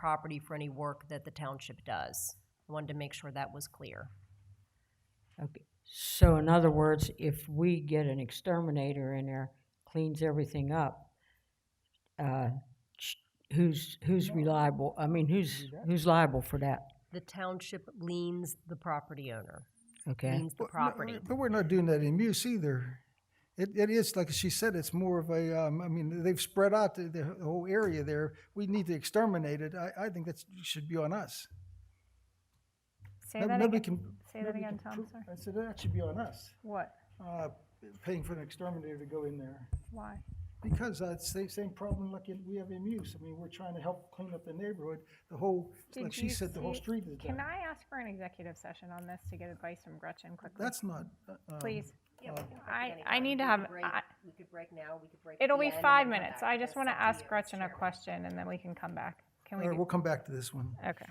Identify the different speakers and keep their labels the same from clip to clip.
Speaker 1: property for any work that the township does. I Wanted to make sure that was clear.
Speaker 2: Okay, so in other words, if we get an exterminator in there, cleans everything up, uh, sh- who's, who's reliable, I mean, who's, who's liable for that?
Speaker 1: The township liens the property owner,
Speaker 2: Okay,
Speaker 1: liens the
Speaker 3: But no,
Speaker 1: property.
Speaker 3: But we're not doing that in Muse either. It, it is, like she said, it's more of a, um, I mean, they've spread out the, the whole area there. We need to exterminate it. I, I think that should be on us.
Speaker 4: Say
Speaker 3: No-
Speaker 4: that
Speaker 3: nobody
Speaker 4: again.
Speaker 3: can-
Speaker 4: Say that
Speaker 3: nobody
Speaker 4: again,
Speaker 3: can
Speaker 4: Tom,
Speaker 3: prove-
Speaker 4: sorry.
Speaker 3: I said that should be on us,
Speaker 4: What?
Speaker 3: uh, paying for an exterminator to go in there.
Speaker 4: Why?
Speaker 3: Because that's the same problem like in, we have in Muse. I mean, we're trying to help clean up the neighborhood, the whole, like
Speaker 4: Did
Speaker 3: she
Speaker 4: you
Speaker 3: said, the whole
Speaker 4: see-
Speaker 3: street is
Speaker 4: Can
Speaker 3: done.
Speaker 4: I ask for an executive session on this to get advice from Gretchen quickly?
Speaker 3: That's not, uh, um,
Speaker 4: Please.
Speaker 1: I,
Speaker 4: I- I need to have- I-
Speaker 1: We could break now, we could break. at
Speaker 4: It'll
Speaker 1: the
Speaker 4: be
Speaker 1: end and
Speaker 4: five
Speaker 1: then come
Speaker 4: minutes.
Speaker 1: back.
Speaker 4: I just
Speaker 1: That's
Speaker 4: want to
Speaker 1: up to
Speaker 4: ask
Speaker 1: you, Mr.
Speaker 4: Gretchen a
Speaker 1: Chairman.
Speaker 4: question and then we can come back. Can
Speaker 3: all
Speaker 4: we
Speaker 3: right,
Speaker 4: do?
Speaker 3: we'll come back to this one.
Speaker 4: Okay.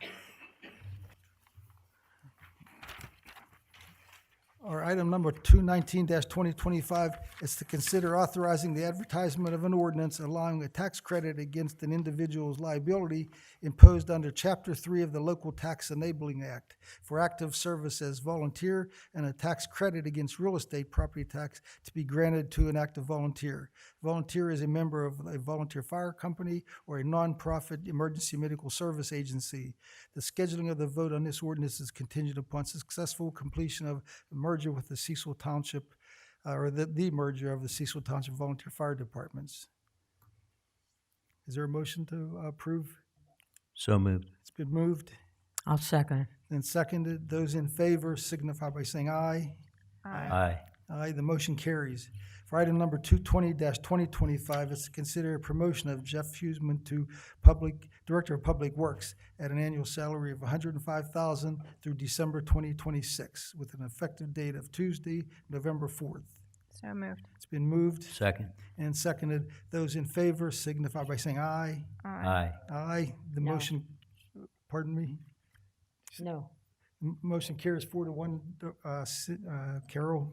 Speaker 3: Or item number two nineteen twenty twenty-five is to consider authorizing the advertisement of an ordinance allowing a tax credit against an individual's liability imposed under chapter three of the Local Tax Enabling Act for active service as volunteer and a tax credit against real estate property tax to be granted to an active volunteer. Volunteer is a member of a volunteer fire company or a nonprofit emergency medical service agency. The scheduling of the vote on this ordinance is contingent upon successful completion of the merger with the Cecil Township, uh, or the, the merger of the Cecil Township Volunteer Fire Departments. Is there a motion to approve?
Speaker 5: So moved.
Speaker 3: It's been moved
Speaker 2: I'll second it.
Speaker 3: and seconded. Those in favor signify by saying aye.
Speaker 5: Aye.
Speaker 3: Aye, the motion carries. For item number two twenty twenty twenty-five, is to consider a promotion of Jeff Huseman to Public, Director of Public Works at an annual salary of hundred and five thousand through December twenty twenty-six, with an effective date of Tuesday, November fourth.
Speaker 4: So moved.
Speaker 3: It's been moved
Speaker 5: Second.
Speaker 3: and seconded. Those in favor signify by saying aye.
Speaker 5: Aye.
Speaker 3: Aye, the
Speaker 2: No.
Speaker 3: motion, pardon me,
Speaker 2: No,
Speaker 3: M- motion carries four to one, uh, si- uh, Carol.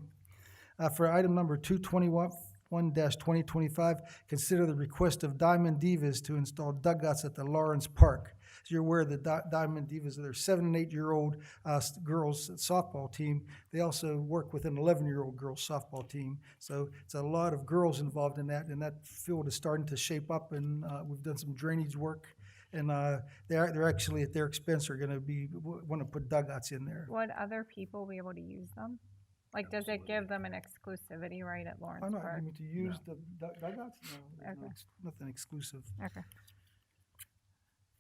Speaker 3: Uh, For item number two twenty-one, one twenty twenty-five, consider the request of Diamond Divas to install dugouts at the Lawrence Park. As you're aware, the Di- Diamond Divas, they're seven and eight-year-old uh, s- girls softball team. They also work with an eleven-year-old girls softball team. So it's a lot of girls involved in that, and that field is starting to shape up, and uh, we've done some drainage work. And uh, they're, they're actually, at their expense, are gonna be, want to put dugouts in there.
Speaker 4: Would other people be able to use them? Like, does it give them an exclusivity right at
Speaker 3: I
Speaker 4: Lawrence
Speaker 3: know, I
Speaker 4: Park?
Speaker 3: mean, to use the dug- dugouts, no, there's no
Speaker 4: Okay.
Speaker 3: ex- nothing exclusive.
Speaker 4: Okay.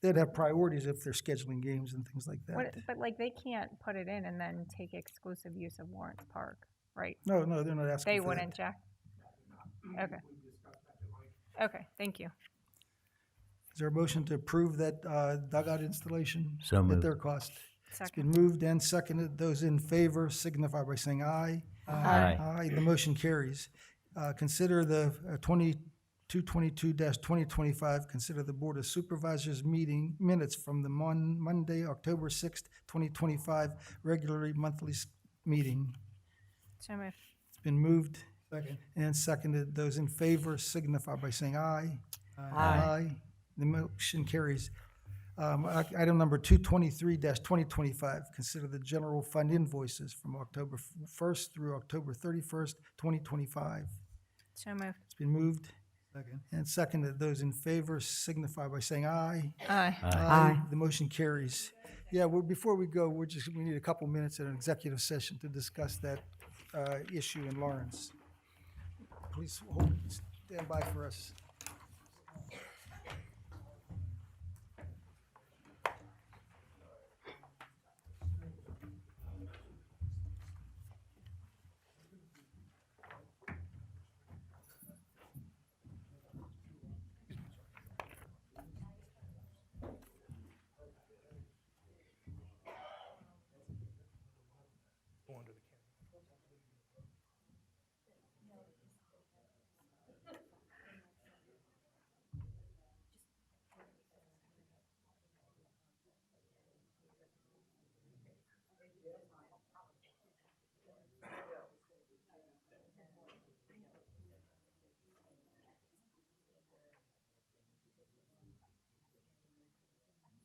Speaker 3: They'd have priorities if they're scheduling games and things like
Speaker 4: What,
Speaker 3: that.
Speaker 4: but like, they can't put it in and then take exclusive use of Lawrence Park, right?
Speaker 3: No, no, they're not asking
Speaker 4: They
Speaker 3: for that.
Speaker 4: wouldn't, Jack? Okay. Okay, thank you.
Speaker 3: Is there a motion to approve that uh, dugout installation?
Speaker 5: So
Speaker 3: At
Speaker 5: moved.
Speaker 3: their cost? It's
Speaker 4: Second.
Speaker 3: been moved and seconded. Those in favor signify by saying aye.
Speaker 5: Aye.
Speaker 3: Aye, the motion carries. Uh, Consider the uh, 2222-2025, consider the Board of Supervisors meeting minutes from the Mon- Monday, October 6th, 2025, regularly monthly s- meeting.
Speaker 4: So moved.
Speaker 3: It's been moved and seconded. Those in favor signify by saying aye. Aye. The motion carries. Um, i- Item number 223-2025, consider the general fund invoices from October f- 1st through October 31st, 2025.
Speaker 4: So moved.
Speaker 3: It's been moved and seconded. Those in favor signify by saying aye.
Speaker 4: Aye.
Speaker 2: Aye.
Speaker 3: The motion carries. Yeah, well, before we go, we're just, we need a couple minutes at an executive session to discuss that uh, issue in Lawrence. Please hold, stand by for us.